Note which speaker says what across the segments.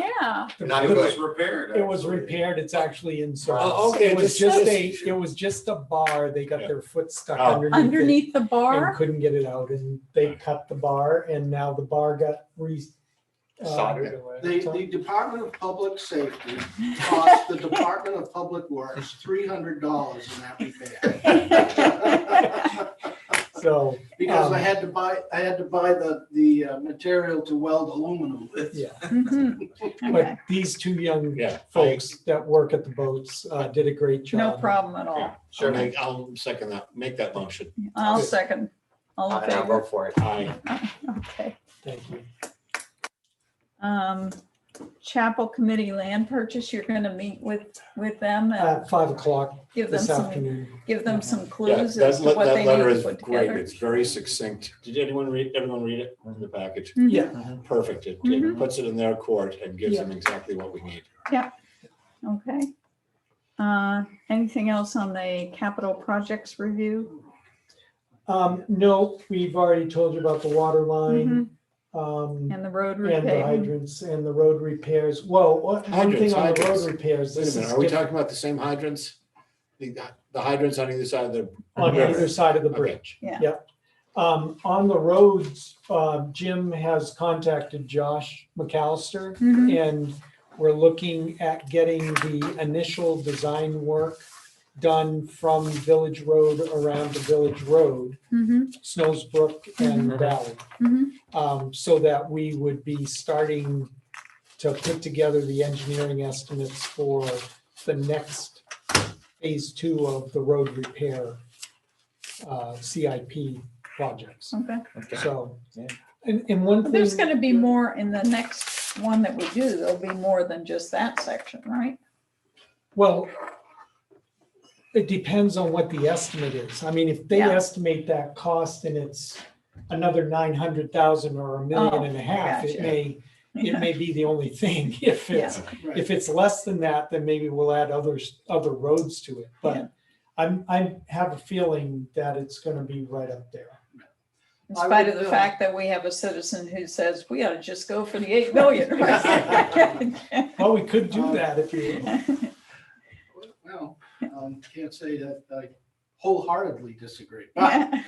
Speaker 1: Yeah,
Speaker 2: Not
Speaker 3: It was
Speaker 2: good.
Speaker 3: repaired.
Speaker 4: It was
Speaker 3: actually.
Speaker 4: repaired, it's actually in service.
Speaker 2: Oh, okay,
Speaker 4: It was
Speaker 2: just-
Speaker 4: just a,
Speaker 2: just-
Speaker 4: it was just a bar, they got their foot stuck
Speaker 2: Oh.
Speaker 4: underneath it.
Speaker 1: underneath the
Speaker 4: And
Speaker 1: bar.
Speaker 4: couldn't get it out, and they cut the bar, and now the bar got re. uh,
Speaker 2: Soldered.
Speaker 5: The, the Department of Public Safety cost the Department of Public Works three hundred dollars in that repair.
Speaker 4: So,
Speaker 5: Because
Speaker 4: Um,
Speaker 5: I had to buy, I had to buy the, the uh, material to weld aluminum with.
Speaker 4: yeah,
Speaker 1: Mhm. Okay,
Speaker 4: but these two young
Speaker 2: Yeah.
Speaker 4: folks that work at the boats uh, did a great job.
Speaker 1: no problem at all.
Speaker 2: Yeah, Sure, make- I'll second that, make that motion.
Speaker 1: I'll second. All in
Speaker 6: And I'll
Speaker 1: favor?
Speaker 6: vote for it.
Speaker 2: Aye.
Speaker 1: Okay.
Speaker 4: Thank you.
Speaker 1: um, Chapel Committee Land Purchase, you're gonna meet with, with them and
Speaker 4: At five o'clock
Speaker 1: give them
Speaker 4: Uh, this
Speaker 1: some,
Speaker 4: afternoon.
Speaker 1: give them some
Speaker 2: Yeah,
Speaker 1: clues
Speaker 2: that
Speaker 1: as to
Speaker 2: le-
Speaker 1: what
Speaker 2: that
Speaker 1: they
Speaker 2: letter
Speaker 1: need to
Speaker 2: is
Speaker 1: put
Speaker 2: Great,
Speaker 1: together.
Speaker 2: it's very succinct. Mm-hmm. Did anyone read, everyone read it in the package?
Speaker 1: Mhm.
Speaker 4: Yeah,
Speaker 2: Perfect. It it
Speaker 1: Mhm.
Speaker 2: puts it in their court and gives them exactly what we need.
Speaker 1: Mm-hmm. Okay. Uh, anything else on the capital projects review?
Speaker 4: um, no, we've already told you about the water line,
Speaker 1: Mhm.
Speaker 4: um,
Speaker 1: And the road
Speaker 4: and the
Speaker 1: repaving?
Speaker 4: hydrants and the road repairs. Whoa, what- one
Speaker 2: Hydrants,
Speaker 4: thing on the
Speaker 2: hydrants.
Speaker 4: road repairs,
Speaker 2: Wait a
Speaker 4: this
Speaker 2: minute,
Speaker 4: is
Speaker 2: are we
Speaker 4: different
Speaker 2: talking about the same hydrants? The the hydrants on either side of the.
Speaker 4: on
Speaker 2: river?
Speaker 4: either side of the
Speaker 2: Okay.
Speaker 4: bridge.
Speaker 1: Yeah.
Speaker 4: Yep. Um, on the roads, uh, Jim has contacted Josh McAllister.
Speaker 1: Mhm.
Speaker 4: And we're looking at getting the initial design work done from Village Road around to Village Road,
Speaker 1: Mhm.
Speaker 4: Snowsbrook
Speaker 1: Mm-hmm.
Speaker 4: and Valley.
Speaker 1: Mhm.
Speaker 4: Um, so that we would be starting to put together the engineering estimates for the next phase two of the road repair uh, CIP projects.
Speaker 1: Okay.
Speaker 4: So,
Speaker 6: Yeah.
Speaker 4: and, and one
Speaker 1: But
Speaker 4: thing.
Speaker 1: There's gonna be more in the next one that we do. There'll be more than just that section, right?
Speaker 4: Well, it depends on what the estimate is. I mean, if they
Speaker 1: Yeah.
Speaker 4: estimate that cost and it's another nine hundred thousand or a million
Speaker 1: Oh,
Speaker 4: and a half, it
Speaker 1: gotcha.
Speaker 4: may, it
Speaker 1: Yeah.
Speaker 4: may be the only thing. If it's,
Speaker 5: Right.
Speaker 4: if it's less than that, then maybe we'll add others, other roads to it.
Speaker 1: Yeah.
Speaker 4: But I'm, I have a feeling that it's gonna be right up there.
Speaker 1: In
Speaker 5: I
Speaker 1: spite
Speaker 5: would,
Speaker 1: of the
Speaker 5: uh,
Speaker 1: fact that we have a citizen who says, we ought to just go for the eight million. right?"
Speaker 4: Well, we could do
Speaker 5: Um,
Speaker 4: that if you,
Speaker 5: Well, um, can't say that I wholeheartedly disagree. But
Speaker 1: Yeah.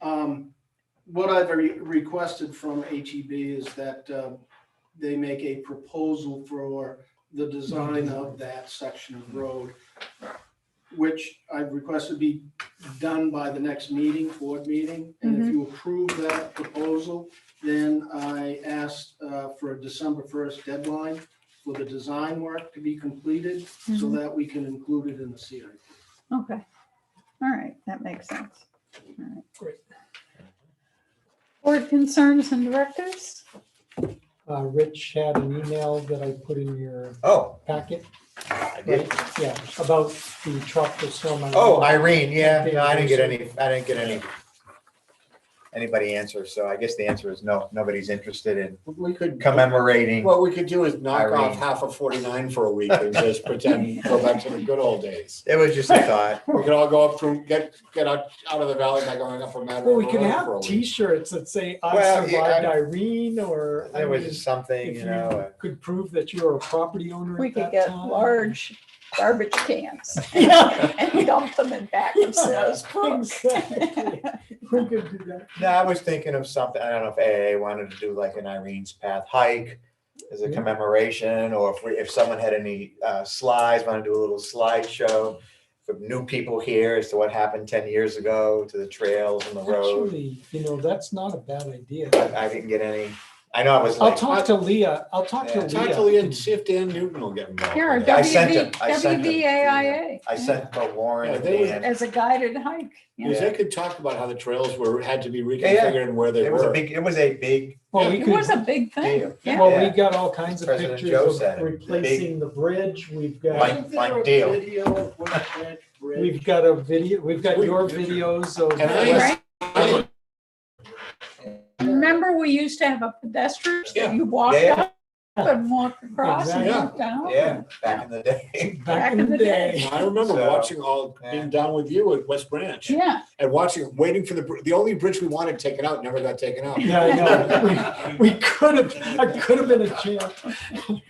Speaker 5: Um, what I've re- requested from HEB is that, um, they make a proposal for the design of that section of road, which I've requested be done by the next meeting, board meeting. And if you approve that proposal, then I asked, uh, for a December first deadline for the design work to be completed so
Speaker 1: Mhm.
Speaker 5: that we can include it in the CIP.
Speaker 1: Okay. All right, that makes sense. All right.
Speaker 4: Great.
Speaker 1: Board concerns and directives?
Speaker 4: uh, Rich had an email that I put in your
Speaker 6: Oh,
Speaker 4: packet,
Speaker 6: I did.
Speaker 4: yeah, about the tropical storm.
Speaker 6: Oh, Irene, yeah, no, I didn't get any, I didn't get any. Anybody answer, so I guess the answer is no, nobody's interested in
Speaker 2: We could.
Speaker 6: commemorating.
Speaker 2: What we could do is knock off
Speaker 6: Irene.
Speaker 2: half of forty-nine for a week and just pretend, go back to the good old days.
Speaker 6: It was just a thought.
Speaker 2: We could all go up from, get, get out, out of the valley by going up a Mad
Speaker 4: Well,
Speaker 2: River
Speaker 4: we could
Speaker 2: Road for a
Speaker 4: have
Speaker 2: week.
Speaker 4: T-shirts that say, I
Speaker 6: Well, yeah,
Speaker 4: survived
Speaker 6: I-
Speaker 4: Irene, or I
Speaker 6: It was
Speaker 4: mean,
Speaker 6: just something,
Speaker 4: if
Speaker 6: you
Speaker 4: you
Speaker 6: know. uh,
Speaker 4: Could prove that you're a property owner
Speaker 1: We
Speaker 4: at
Speaker 1: could
Speaker 4: that
Speaker 1: get
Speaker 4: time.
Speaker 1: large garbage cans and dump them in back of Sarah's book.
Speaker 4: Exactly. We could do that.
Speaker 6: No, I was thinking of something, I don't know if AA wanted to do like an Irene's Path hike as a
Speaker 4: Yeah.
Speaker 6: commemoration, or if we, if someone had any uh, slides, want to do a little slideshow for new people here as to what happened ten years ago to the trails and the road.
Speaker 4: Actually, you know, that's not a bad idea.
Speaker 6: But I didn't get any, I know I was
Speaker 4: I'll
Speaker 6: like,
Speaker 4: talk to Leah, I'll talk to
Speaker 6: Yeah.
Speaker 2: Talk to Lee
Speaker 4: Leah.
Speaker 2: and see if Dan Newton will get involved.
Speaker 1: Here,
Speaker 2: with that.
Speaker 6: I sent
Speaker 1: WB,
Speaker 6: them, I sent them.
Speaker 1: WBAIA.
Speaker 6: I sent the
Speaker 2: Yeah,
Speaker 6: Warren.
Speaker 2: they were-
Speaker 6: and-
Speaker 1: As a guided hike.
Speaker 2: Because
Speaker 1: yeah.
Speaker 2: they could talk about how the trails were, had to be
Speaker 6: Yeah, yeah.
Speaker 2: reconfigured and where they
Speaker 6: It was a
Speaker 2: were.
Speaker 6: big, it was a big,
Speaker 4: Well, we
Speaker 1: It
Speaker 4: could,
Speaker 1: was a big thing,
Speaker 6: deal.
Speaker 1: yeah.
Speaker 4: well, we
Speaker 6: Yeah.
Speaker 4: got all kinds of
Speaker 6: President
Speaker 4: pictures
Speaker 6: Joe
Speaker 4: of
Speaker 6: said, big-
Speaker 4: replacing the bridge, we've got,
Speaker 6: Like-
Speaker 5: Isn't there
Speaker 6: like
Speaker 5: a
Speaker 6: Dale.
Speaker 5: Video of what that bridge
Speaker 4: we've got a video, we've got
Speaker 2: We-
Speaker 4: your videos of.
Speaker 2: And I-
Speaker 1: Right?
Speaker 2: I-
Speaker 1: Remember, we used to have a pedestrian,
Speaker 2: Yeah.
Speaker 1: you walked
Speaker 6: Yeah.
Speaker 1: up and walked across and
Speaker 4: Exactly.
Speaker 1: walked down.
Speaker 6: yeah, back in the day.
Speaker 4: Back in the day.
Speaker 2: I remember
Speaker 6: So-
Speaker 2: watching all, being down with you at West Branch
Speaker 1: Yeah,
Speaker 2: and watching, waiting for the, br- the only bridge we wanted taken out never got taken out.
Speaker 4: Yeah, I know. We- We could have, I could have been a champ.